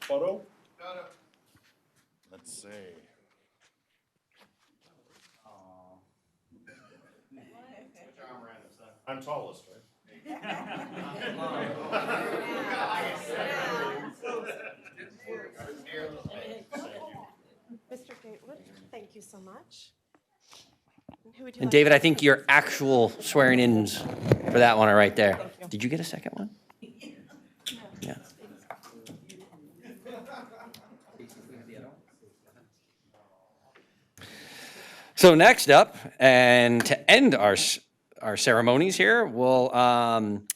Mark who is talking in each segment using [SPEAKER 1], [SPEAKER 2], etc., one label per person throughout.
[SPEAKER 1] Photo? Let's see. I'm tallest, right?
[SPEAKER 2] Mr. Gatewood, thank you so much. And who would you
[SPEAKER 3] And
[SPEAKER 2] like-
[SPEAKER 3] David, I think your actual swearing ins for that one are right there. Did you get a second one? Yeah. So next up, and to end our, s- our ceremonies here, we'll um,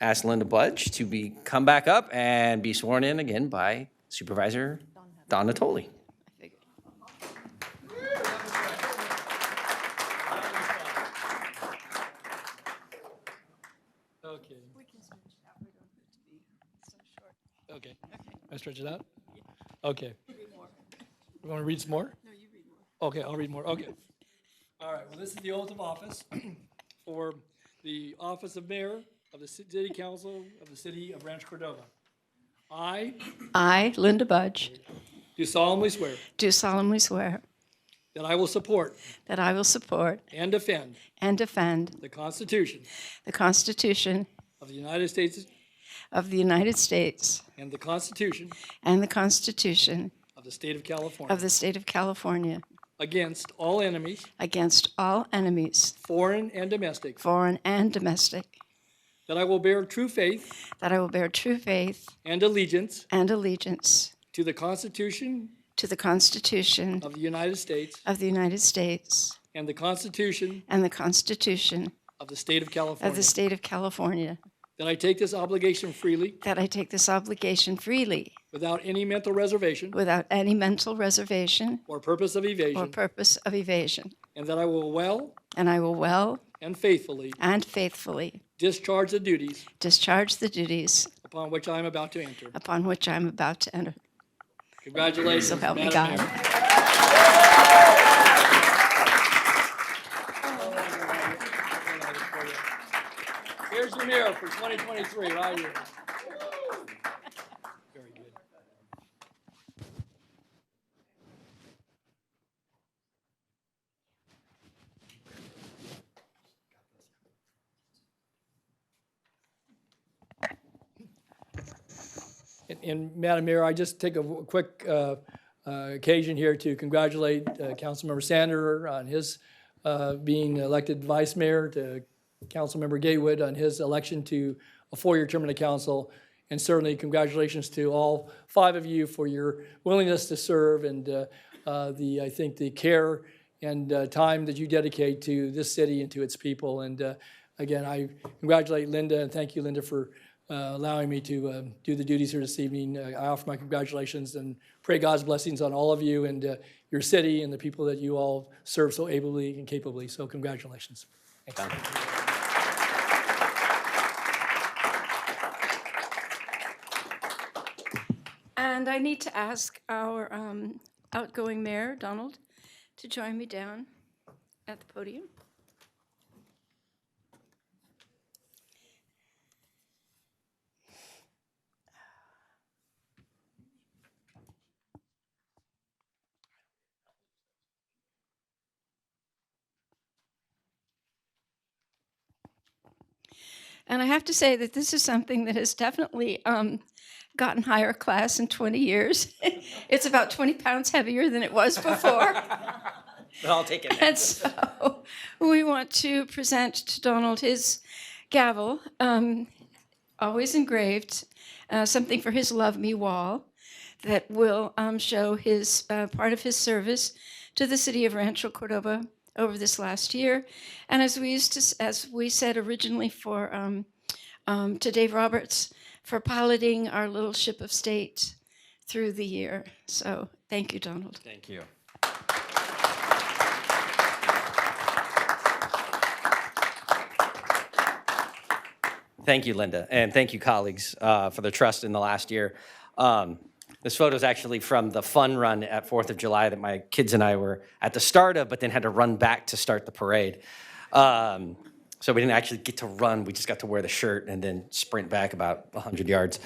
[SPEAKER 3] ask Linda Budge to be, come back up and be sworn in again by Supervisor Don Natoli.
[SPEAKER 4] Okay. We can stretch it out. Okay. I stretch it out? Okay. You want to read some more? No, you read more. Okay, I'll read more. Okay. All right, well, this is the oath of office for the office of mayor of the city council of the city of Rancho Cordova. I
[SPEAKER 5] I, Linda Budge,
[SPEAKER 4] do solemnly swear
[SPEAKER 5] do solemnly swear
[SPEAKER 4] that I will support
[SPEAKER 5] that I will support
[SPEAKER 4] and defend
[SPEAKER 5] and defend
[SPEAKER 4] the Constitution
[SPEAKER 5] the Constitution
[SPEAKER 4] of the United States
[SPEAKER 5] of the United States
[SPEAKER 4] and the Constitution
[SPEAKER 5] and the Constitution
[SPEAKER 4] of the state of
[SPEAKER 5] of
[SPEAKER 4] California
[SPEAKER 5] the State of California
[SPEAKER 4] against all enemies,
[SPEAKER 5] against all enemies,
[SPEAKER 4] foreign and domestic,
[SPEAKER 5] foreign and domestic,
[SPEAKER 4] That I will bear true faith
[SPEAKER 5] that I will bear true faith
[SPEAKER 4] and allegiance
[SPEAKER 5] and allegiance
[SPEAKER 4] to the Constitution
[SPEAKER 5] to the Constitution
[SPEAKER 4] of the United States
[SPEAKER 5] of the United States
[SPEAKER 4] and the Constitution
[SPEAKER 5] and the Constitution
[SPEAKER 4] of the State of
[SPEAKER 5] of
[SPEAKER 4] California.
[SPEAKER 5] the State of California,
[SPEAKER 4] That I take this obligation freely
[SPEAKER 5] that I take this obligation freely
[SPEAKER 4] without any mental reservation
[SPEAKER 5] without any mental reservation
[SPEAKER 4] or purpose of
[SPEAKER 5] or
[SPEAKER 4] evasion.
[SPEAKER 5] purpose of evasion.
[SPEAKER 4] And that I will well
[SPEAKER 5] And I will well
[SPEAKER 4] and faithfully
[SPEAKER 5] and faithfully
[SPEAKER 4] discharge the duties
[SPEAKER 5] discharge the duties
[SPEAKER 4] upon which I am about to enter.
[SPEAKER 5] upon which I am about to enter.
[SPEAKER 4] Congratulations,
[SPEAKER 5] So help me
[SPEAKER 4] Madam
[SPEAKER 5] God.
[SPEAKER 4] Mayor. Here's your mayor for 2023, right here. Very good. And- And Madam Mayor, I just take a w- quick uh, uh, occasion here to congratulate uh, Councilmember Sander on his uh, being elected vice mayor, to Councilmember Gatewood on his election to a four-year term in the council. And certainly congratulations to all five of you for your willingness to serve and uh, uh, the, I think, the care and uh, time that you dedicate to this city and to its people. And uh, again, I congratulate Linda and thank you, Linda, for uh, allowing me to uh, do the duties here this evening. Uh, I offer my congratulations and pray God's blessings on all of you and uh, your city and the people that you all serve so ably and capably. So congratulations.
[SPEAKER 5] And I need to ask our um, outgoing mayor, Donald, to join me down at the podium. And I have to say that this is something that has definitely um, gotten higher class in 20 years. it's about 20 pounds heavier than it was before.
[SPEAKER 3] I'll take it.
[SPEAKER 5] and so we want to present to Donald his gavel, um, always engraved, uh, something for his Love Me wall that will um, show his uh, part of his service to the city of Rancho Cordova over this last year. And as we used to, s- as we said originally for um, um, to Dave Roberts for piloting our little ship of state through the year. So thank you, Donald.
[SPEAKER 3] Thank you. Thank you, Linda, and thank you, colleagues, uh, for the trust in the last year. Um, This photo is actually from the fun run at Fourth of July that my kids and I were at the start of, but then had to run back to start the parade. Um, So we didn't actually get to run, we just got to wear the shirt and then sprint back about 100 yards.